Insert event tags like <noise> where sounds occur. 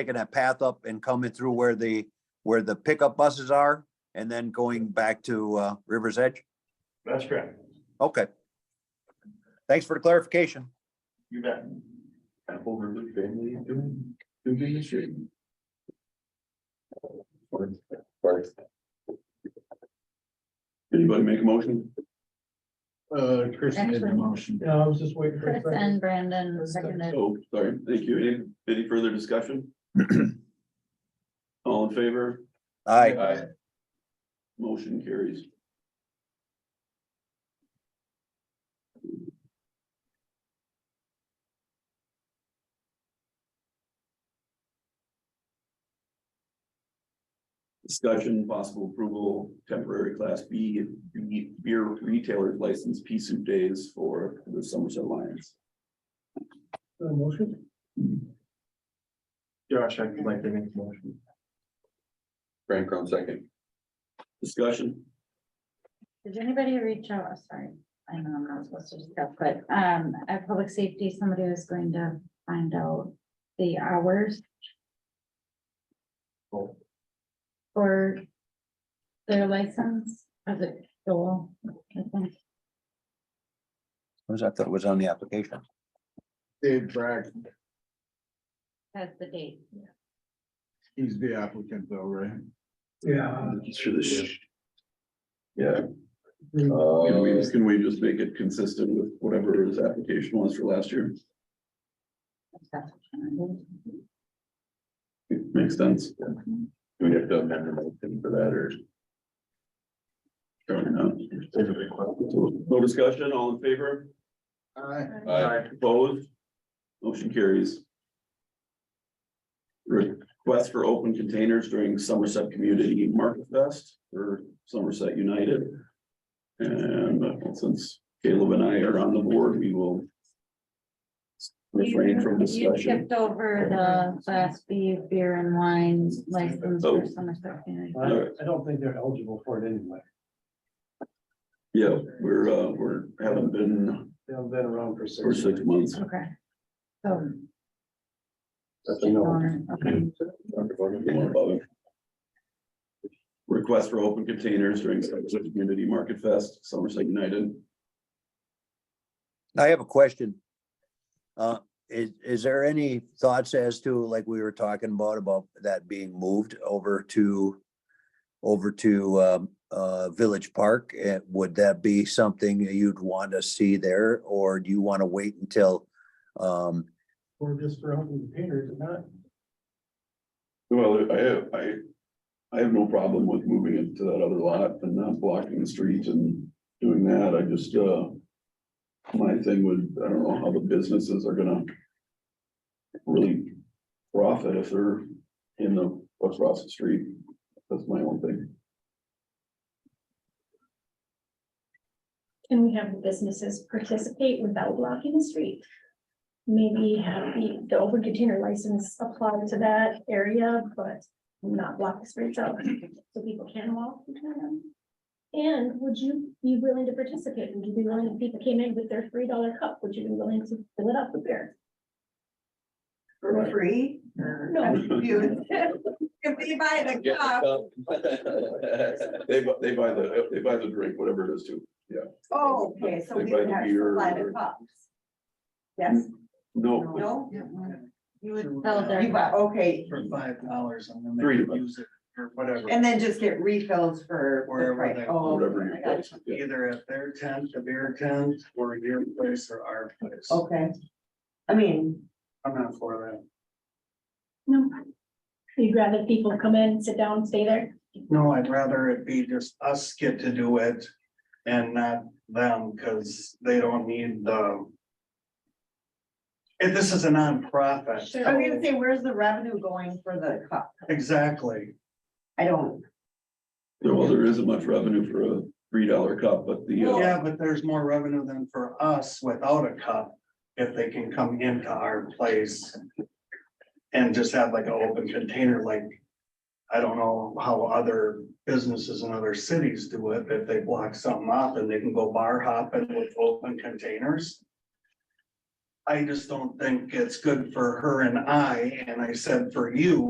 taking that path up and coming through where the, where the pickup buses are and then going back to uh, River's Edge? That's correct. Okay. Thanks for the clarification. You bet. Apple River family doing, doing this year. Anybody make a motion? Uh, Chris made the Actually- motion. No, I was just waiting Chris and Brandon seconded. Oh, sorry, thank you. Any, any further discussion? <clears throat> All in favor? Aye. Motion carries. Discussion, possible approval, temporary class B, B- beer retailer license, P soup days for the Somerset Lions. Motion? Josh, I'd like to make a motion. Frank Crown second. Discussion, Did anybody reach out? Oh, Sorry, I know I'm not supposed to discuss, but um, at public safety, somebody was going to find out the hours. Oh. For their license, as it Joel, I think. Was that, that was on the application? Dave Bragg, Has the date. he's the applicant though, right? Yeah. Sure, this. sh- Yeah. Um, Can we, can we just make it consistent with whatever his application was for last year? That's what I'm doing. Makes sense. Do we have to amend the motion for that or? Sure, no. No discussion, all in favor? Aye. Aye. Opposed? Motion carries. Request for open containers during Somerset Community Market Fest for Somerset United. And uh, since Caleb and I are on the board, we will. Refrain from You- You discussion. skipped over the class B beer and wine license Oh. for Somerset County. I I don't think they're eligible for it anyway. Yeah, we're, uh, we're, haven't been They've been around for six. for six months. Okay. So. That's Okay. Mm-hmm. Request for open containers during Somerset Community Market Fest, Somerset United. I have a question. Uh, is, is there any thoughts as to, like we were talking about, about that being moved over to, over to, um, uh, Village Park? Uh, would that be something that you'd want to see there, or do you want to wait until, um, Or just for open containers, not. Well, I have, I, I have no problem with moving it to that other lot and not blocking the street and doing that, I just, uh. My thing would, I don't know how the businesses are gonna. Really profit if they're in the, across the street, that's my own thing. Can we have the businesses participate without blocking the street? Maybe have the, the open container license apply to that area, but not block the streets out, so people can walk. between them. And would you be willing to participate? Would you be willing, if people came in with their three dollar cup, would you be willing to fill it up with beer? For free? No. <laughs> If they buy the <laughs> cup, They, bu- they buy the, they buy the drink, whatever it is too. oh, okay, so They we buy would the have beer to buy or- the cups. Yes, No, no? You would, Sell their- you buy, okay, For five dollars, I'm gonna Three make bucks. them use it or whatever. and then just get refills for. Wherever right, they- oh, whatever your I got place, you. yeah. Either at their tent, the beer tent, or your place or our place. Okay. I mean, I'm not for No. You'd rather people come in, sit down, stay there? that. No, I'd rather it be just us get to do it and not them, cause they don't need the. And this is a nonprofit. Sure. I was gonna say, where's the revenue going for the cup? Exactly. I don't, well, there isn't much revenue for a three dollar cup, but the. uh, Yeah, but there's more revenue than for us without a cup, if they can come into our place. And just have like an open container, like, I don't know how other businesses in other cities do it, but if they block something off and they can go bar hopping with open containers. I just don't think it's good for her and I, and I said for you,